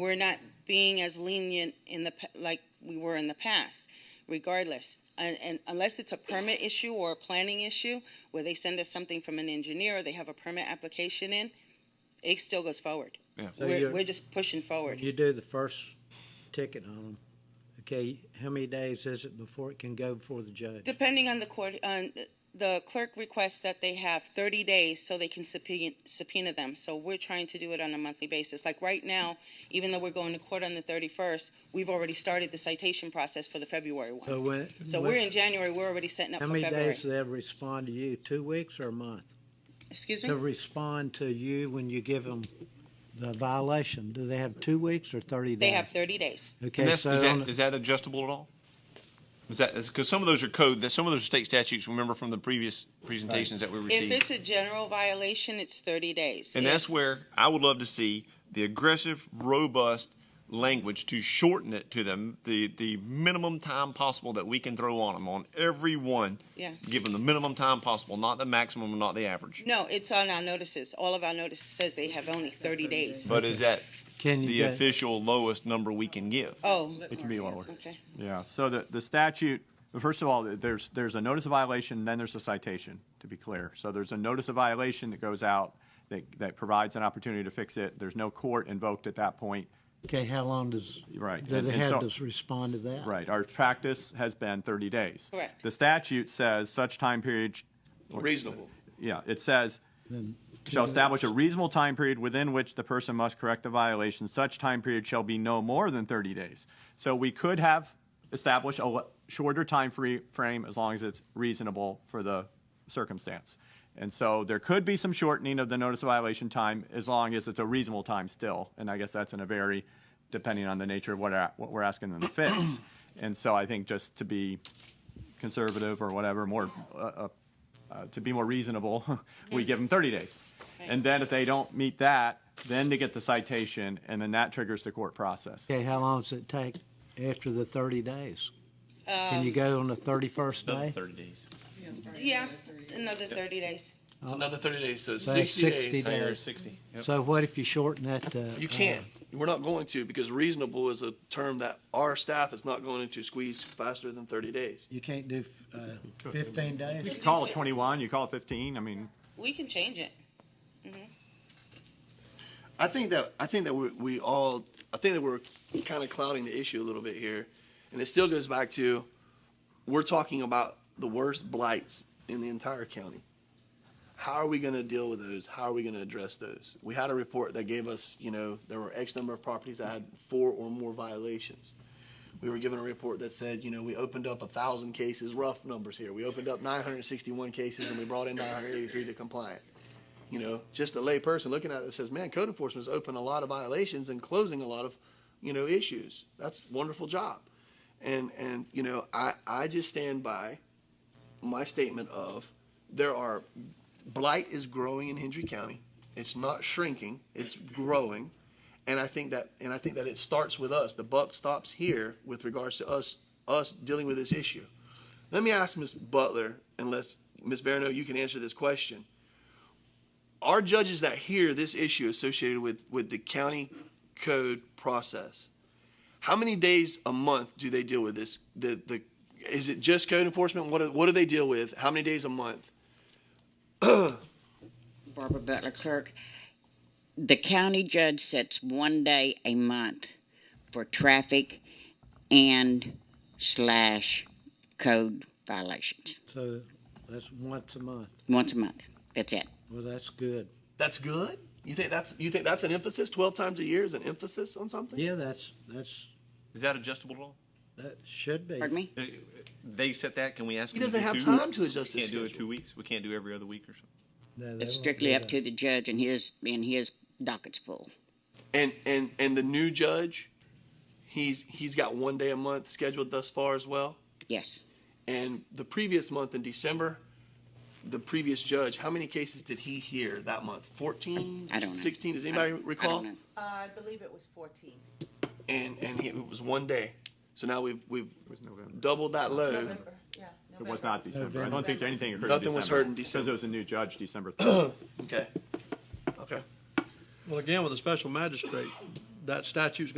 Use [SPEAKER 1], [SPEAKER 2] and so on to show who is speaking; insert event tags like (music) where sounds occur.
[SPEAKER 1] We're not being as lenient in the, pa- like we were in the past, regardless. And, and unless it's a permit issue or a planning issue, where they send us something from an engineer, or they have a permit application in, it still goes forward.
[SPEAKER 2] Yeah.
[SPEAKER 3] So
[SPEAKER 1] We're,
[SPEAKER 3] you're-
[SPEAKER 1] we're just pushing forward.
[SPEAKER 3] You do the first ticket on them, okay, how many days is it before it can go before the judge?
[SPEAKER 1] Depending on the court, on the clerk requests that they have thirty days so they can subpoena, subpoena them. So we're trying to do it on a monthly basis. Like right now, even though we're going to court on the thirty-first, we've already started the citation process for the February
[SPEAKER 3] So
[SPEAKER 1] one.
[SPEAKER 3] when,
[SPEAKER 1] So
[SPEAKER 3] when-
[SPEAKER 1] we're in January, we're already setting up
[SPEAKER 3] how
[SPEAKER 1] for
[SPEAKER 3] many
[SPEAKER 1] February.
[SPEAKER 3] days do they respond to you, two weeks or a month?
[SPEAKER 1] Excuse
[SPEAKER 3] To
[SPEAKER 1] me?
[SPEAKER 3] respond to you when you give them the violation, do they have two weeks or thirty days?
[SPEAKER 1] They have thirty days.
[SPEAKER 2] And
[SPEAKER 3] Okay,
[SPEAKER 2] that's,
[SPEAKER 3] so,
[SPEAKER 2] is,
[SPEAKER 3] on-
[SPEAKER 2] that, is that adjustable at all? Is that because some of those are code that some of those are state statutes? Remember from the previous presentations that we
[SPEAKER 1] If
[SPEAKER 2] received,
[SPEAKER 1] it's a general violation, it's thirty days.
[SPEAKER 2] and
[SPEAKER 1] If-
[SPEAKER 2] that's where I would love to see the aggressive, robust language to shorten it to them the the minimum time possible that we can throw on them on every one.
[SPEAKER 1] Yeah.
[SPEAKER 2] Give them the minimum time possible, not the maximum, not the average.
[SPEAKER 1] No, it's on our notices. All of our notices says they have only thirty days.
[SPEAKER 2] But is that
[SPEAKER 3] Can you
[SPEAKER 2] the
[SPEAKER 3] get-
[SPEAKER 2] official lowest number we can give?
[SPEAKER 1] Oh,
[SPEAKER 4] It can be lower.
[SPEAKER 1] okay.
[SPEAKER 4] Yeah, so the, the statute, well, first of all, there's, there's a notice of violation, then there's a citation, to be clear. So there's a notice of violation that goes out, that, that provides an opportunity to fix it. There's no court invoked at that point.
[SPEAKER 3] okay, how long does,
[SPEAKER 4] Right,
[SPEAKER 3] do
[SPEAKER 4] and-
[SPEAKER 3] they
[SPEAKER 4] and
[SPEAKER 3] have
[SPEAKER 4] so-
[SPEAKER 3] to respond to that?
[SPEAKER 4] Right, our practice has been 30 days.
[SPEAKER 1] Correct.
[SPEAKER 4] The statute says such time period,
[SPEAKER 2] Reasonable.
[SPEAKER 4] yeah, it says, shall establish a reasonable time period within which the person must correct the violation. Such time period shall be no more than 30 days. So we could have established a le- shorter time free frame as long as it's reasonable for the circumstance. And so there could be some shortening of the notice of violation time as long as it's a reasonable time still. And I guess that's in a very, depending on the nature of what, a- what we're asking them to fix. And so I think just to be conservative or whatever, more, uh, uh, uh, to be more reasonable, (laughs) we give them 30 days. And then if they don't meet that, then they get the citation, and then that triggers the court process.
[SPEAKER 3] Okay, how long does it take after the thirty days? Can
[SPEAKER 1] Um,
[SPEAKER 3] you go on the thirty-first
[SPEAKER 4] Oh,
[SPEAKER 3] day?
[SPEAKER 2] Thirty days.
[SPEAKER 1] Yeah, another thirty days.
[SPEAKER 5] It's another 30 days, so
[SPEAKER 3] So that's
[SPEAKER 5] 60
[SPEAKER 3] 60
[SPEAKER 5] days.
[SPEAKER 3] days.
[SPEAKER 2] Or sixty. Yep.
[SPEAKER 3] So what if you shorten that to?
[SPEAKER 5] You
[SPEAKER 3] uh,
[SPEAKER 5] can't. We're not going to because reasonable is a term that our staff is not going to squeeze faster than 30 days.
[SPEAKER 3] You can't do uh, fifteen days?
[SPEAKER 4] You call it 21, you call it 15, I mean,
[SPEAKER 1] We can change it.
[SPEAKER 5] I think that I think that we, we all I think that we're kind of clouding the issue a little bit here, and it still goes back to we're talking about the worst blights in the entire county. How are we going to deal with those? How are we going to address those? We had a report that gave us, you know, there were X number of properties that had four or more violations. We were given a report that said, you know, we opened up a thousand cases, rough numbers here. We opened up 961 cases and we brought in 983 to compliant you know, just a lay person looking at it says, man, code enforcement's open a lot of violations and closing a lot of, you know, issues. That's a wonderful job. And, and, you know, I, I just stand by my statement of there are, blight is growing in Hendry County. It's not shrinking, it's growing. And I think that, and I think that it starts with us. The buck stops here with regards to us, us dealing with this issue. Let me ask Ms. Butler, unless Ms. Barano, you can answer this question our judges that hear this issue associated with, with the county code process, how many days a month do they deal with this? The, the, is it just code enforcement? What do, what do they deal with? How many days a month?
[SPEAKER 6] Barbara Butler Clerk. The county judge sets one day a month for traffic and slash code violations.
[SPEAKER 3] So that's once a month.
[SPEAKER 6] Once a month. That's it.
[SPEAKER 3] Well, that's good.
[SPEAKER 5] That's good. You think that's you think that's an emphasis? Twelve times a year is an emphasis on something?
[SPEAKER 3] Yeah, that's, that's,
[SPEAKER 2] Is that adjustable at all?
[SPEAKER 3] that should be.
[SPEAKER 6] Pardon me?
[SPEAKER 2] Uh, They set that. Can we ask?
[SPEAKER 5] He
[SPEAKER 2] them to
[SPEAKER 5] doesn't
[SPEAKER 2] do
[SPEAKER 5] have
[SPEAKER 2] two?
[SPEAKER 5] time to adjust
[SPEAKER 2] We
[SPEAKER 5] his
[SPEAKER 2] Can't do it
[SPEAKER 5] schedule.
[SPEAKER 2] two weeks. We can't do every other week or something.
[SPEAKER 3] No, they
[SPEAKER 6] It's
[SPEAKER 3] won't
[SPEAKER 6] strictly
[SPEAKER 3] do
[SPEAKER 6] up
[SPEAKER 3] that.
[SPEAKER 6] to the judge and his and his docket's full.
[SPEAKER 5] And and and the new judge, he's he's got one day a month scheduled thus far as well.
[SPEAKER 6] Yes.
[SPEAKER 5] And the previous month in December, the previous judge, how many cases did he hear that month? 14?
[SPEAKER 6] I don't know.
[SPEAKER 5] 16? Does
[SPEAKER 6] I-
[SPEAKER 5] anybody
[SPEAKER 6] I
[SPEAKER 5] recall?
[SPEAKER 6] don't know.
[SPEAKER 7] I believe it was 14.
[SPEAKER 5] and and he, it was one day. So now we've we've doubled that load.
[SPEAKER 7] November, yeah.
[SPEAKER 4] it was not December. I don't think anything occurred in December.
[SPEAKER 5] Nothing was heard in
[SPEAKER 4] Because
[SPEAKER 5] December.
[SPEAKER 4] it was a new judge, December 3rd.
[SPEAKER 5] Okay, okay.
[SPEAKER 8] Well, again, with a special magistrate, that statute's